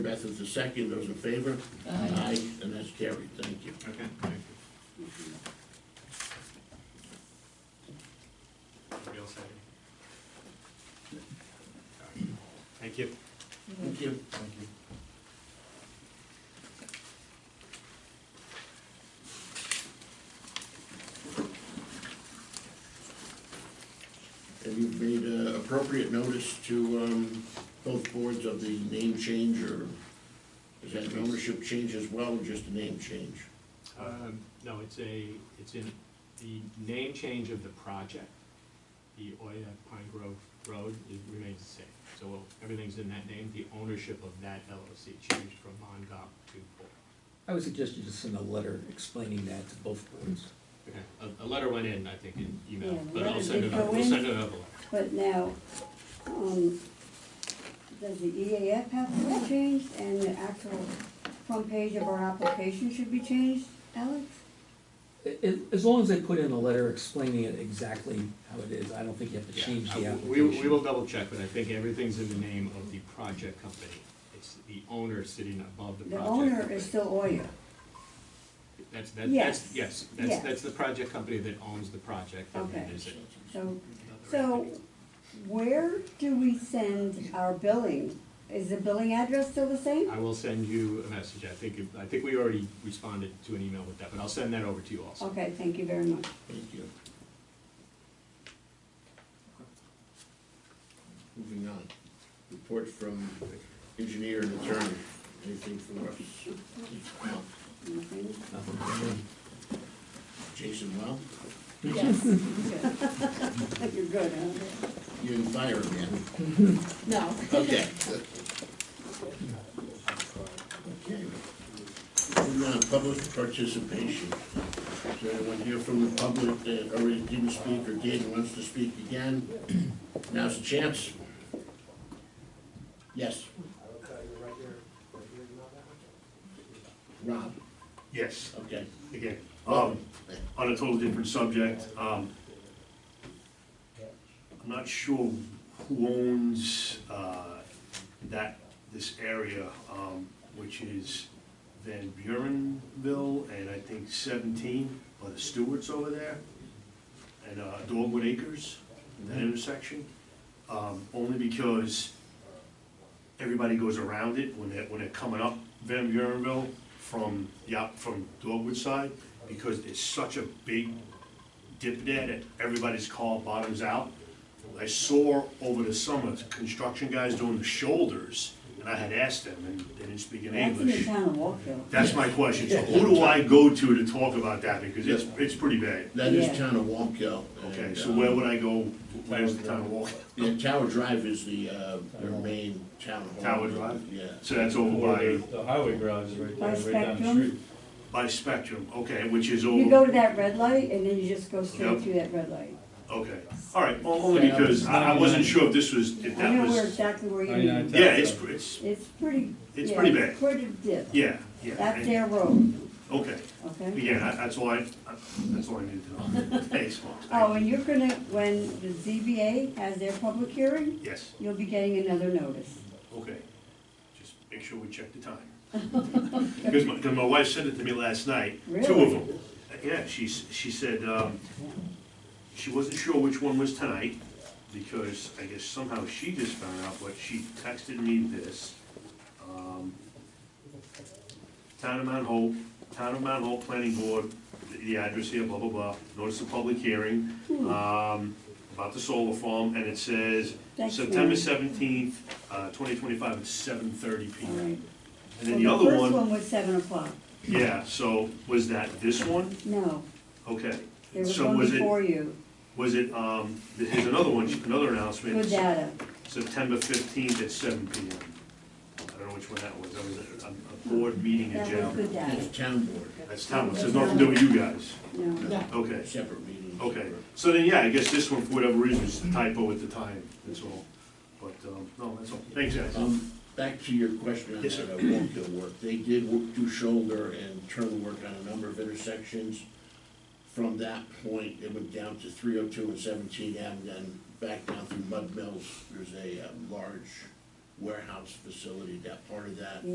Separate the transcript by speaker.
Speaker 1: Beth is the second, those in favor?
Speaker 2: Aye.
Speaker 1: and that's carried, thank you.
Speaker 3: Okay, thank you. Anybody else have any? Thank you.
Speaker 1: Thank you.
Speaker 3: Thank you.
Speaker 1: Have you made uh, appropriate notice to um, both boards of the name change, or is that an ownership change as well, or just a name change?
Speaker 3: Um, No, it's a, it's in the name change of the project. The Oya Pine Grove Road is- remains the same. So well, everything's in that name. The ownership of that LLC changed from Mongop to Bull.
Speaker 4: I would suggest you just send a letter explaining that to both boards.
Speaker 3: Okay, A, a letter went in, I think, in
Speaker 2: Yeah,
Speaker 3: email,
Speaker 2: the
Speaker 3: but I'll
Speaker 2: letter
Speaker 3: send
Speaker 2: did
Speaker 3: it, out-
Speaker 2: go
Speaker 3: we'll
Speaker 2: in.
Speaker 3: send it over.
Speaker 2: But now, um, does the EAF have to be changed and the actual front page of our application should be changed, Alex?
Speaker 4: I- I- As long as they put in a letter explaining it exactly how it is, I don't think you have to
Speaker 3: Yeah,
Speaker 4: change the
Speaker 3: uh,
Speaker 4: application.
Speaker 3: We, we will double check, but I think everything's in the name of the project company. It's the owner sitting above the
Speaker 2: The
Speaker 3: project.
Speaker 2: owner
Speaker 3: company.
Speaker 2: is still Oya.
Speaker 3: That's, that- that's,
Speaker 2: Yes,
Speaker 3: yes, that's,
Speaker 2: yes.
Speaker 3: that's the project company that owns the project. and
Speaker 2: Okay.
Speaker 3: is it-
Speaker 2: So, so where do we send our billing? Is the billing address still the same?
Speaker 3: I will send you a message. I think, I think we already responded to an email with that, but I'll send that over to you also.
Speaker 2: Okay, thank you very much.
Speaker 1: Thank you. Moving on, report from engineer and attorney, anything for us? No.
Speaker 2: Nothing?
Speaker 1: Jason, well,
Speaker 5: Yes, good.
Speaker 2: You're good, huh?
Speaker 1: you didn't fire him yet.
Speaker 5: No.
Speaker 1: Okay. Okay. Moving on, public participation. Is there anyone here from the public that already didn't speak or did and wants to speak again? Now's the chance. Yes, Rob,
Speaker 6: Yes,
Speaker 1: okay.
Speaker 6: again, um, on a total different subject, um, I'm not sure who owns, uh, that, this area, um, which is Van Burenville and I think seventeen, or the Stewarts over there, and, uh, Dogwood Acres, that intersection, um, only because everybody goes around it when they're, when they're coming up Van Burenville from, yeah, from Dogwood side, because it's such a big dip there that everybody's call bottoms out. I saw over the summer, construction guys doing the shoulders, and I had asked them, and they didn't speak in
Speaker 2: That's in the
Speaker 6: English.
Speaker 2: town of Walkville.
Speaker 6: That's my question, so who do I go to to talk about that, because it's, it's pretty bad.
Speaker 1: That is
Speaker 2: Yeah.
Speaker 1: town of Wamco.
Speaker 6: Okay,
Speaker 1: and,
Speaker 6: so
Speaker 1: uh,
Speaker 6: where would I go, where's the town walk?
Speaker 1: Yeah, Tower Drive is the, uh, their main town hall.
Speaker 6: Tower Drive?
Speaker 1: Yeah.
Speaker 6: So that's over by,
Speaker 7: The highway garage is right
Speaker 2: By
Speaker 7: there, right down the
Speaker 2: Spectrum?
Speaker 7: street.
Speaker 6: by Spectrum, okay, which is over.
Speaker 2: You go to that red light and then you just go straight
Speaker 6: Yep.
Speaker 2: through that red light.
Speaker 6: Okay, all right, well, only because I, I wasn't sure if this was, if
Speaker 2: I
Speaker 6: that
Speaker 2: know where
Speaker 6: was,
Speaker 2: exactly where you
Speaker 7: I know, I
Speaker 2: mean.
Speaker 7: tell-
Speaker 6: yeah, it's, it's,
Speaker 2: It's pretty.
Speaker 6: It's
Speaker 2: yeah,
Speaker 6: pretty bad.
Speaker 2: Pretty dip.
Speaker 6: yeah, yeah.
Speaker 2: That's
Speaker 6: and-
Speaker 2: their road,
Speaker 6: Okay,
Speaker 2: okay?
Speaker 6: yeah, that- that's why, that's all I needed to know. Thanks, folks.
Speaker 2: Oh, and you're gonna, when the ZBA has their public hearing,
Speaker 6: Yes,
Speaker 2: you'll be getting another notice.
Speaker 6: okay, just make sure we check the time. Because my, because my wife said it to me last night, two of
Speaker 2: Really?
Speaker 6: them. Yeah, she, s- she said, um, she wasn't sure which one was tonight, because I guess somehow she just found out, but she texted me this. um, Town of Mount Hope, Town of Mount Hope Planning Board, the- the address here, blah, blah, blah, notice of public hearing, um, about the solar farm, and it says
Speaker 2: Thanks,
Speaker 6: September
Speaker 2: Mary.
Speaker 6: seventeenth, uh, twenty twenty-five at seven thirty P
Speaker 2: All
Speaker 6: M.
Speaker 2: right.
Speaker 6: And then the other
Speaker 2: First
Speaker 6: one,
Speaker 2: one was seven o'clock.
Speaker 6: yeah, so was that this one?
Speaker 2: No,
Speaker 6: Okay.
Speaker 2: there was
Speaker 6: So
Speaker 2: one
Speaker 6: was it-
Speaker 2: before you,
Speaker 6: Was it, um, th- here's another one, another announcement,
Speaker 2: with data.
Speaker 6: September fifteenth at seven P M. I don't know which one that was, that was a, a board meeting in
Speaker 2: That was
Speaker 6: general.
Speaker 2: good data,
Speaker 1: It's town board,
Speaker 6: That's town, it has nothing to do with you guys.
Speaker 2: no.
Speaker 5: No.
Speaker 6: Okay,
Speaker 1: separate meeting.
Speaker 6: okay.
Speaker 1: separate-
Speaker 6: So then, yeah, I guess this one, for whatever reason, is the typo at the time, that's all. But, um, no, that's all. Thanks, guys.
Speaker 1: Um, back to your question on
Speaker 6: Yes,
Speaker 1: that
Speaker 6: sir.
Speaker 1: uh, roadkill work, they did wo- do shoulder and turn work on a number of intersections. From that point, it went down to three oh two and seventeen Ave, then back down through Mud Mills, there's a, uh large warehouse um, facility, that part of that.